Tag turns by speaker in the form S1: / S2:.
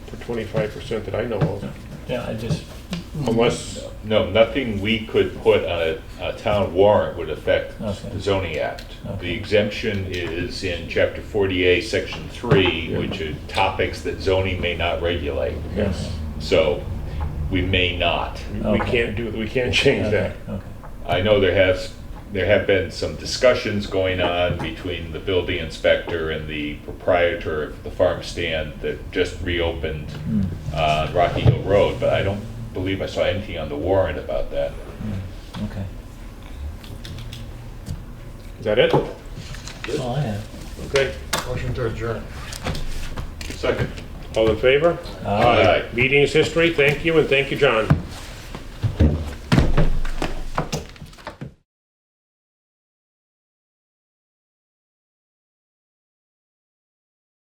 S1: twenty-five percent that I know of,
S2: Yeah, I just,
S1: unless,
S3: No, nothing we could put on a, a town warrant would affect
S2: Okay.
S3: the zoning act.
S2: Okay.
S3: The exemption is in chapter 48, section 3, which are topics that zoning may not regulate.
S1: yes,
S3: So we may not.
S1: we we
S2: Okay.
S1: can't do, we can't change that.
S2: okay, okay.
S3: I know there has, there have been some discussions going on between the building inspector and the proprietor of the farm stand that just reopened
S2: Mm.
S3: uh, on Rocky Hill Road, but I don't believe I saw anything on the warrant about that.
S2: Okay.
S1: Is that it?
S2: That's all I have.
S1: Okay,
S4: Motion to adjourn.
S3: Second.
S1: all in favor?
S2: Uh,
S3: Aye.
S1: Meeting is history, thank you, and thank you, John.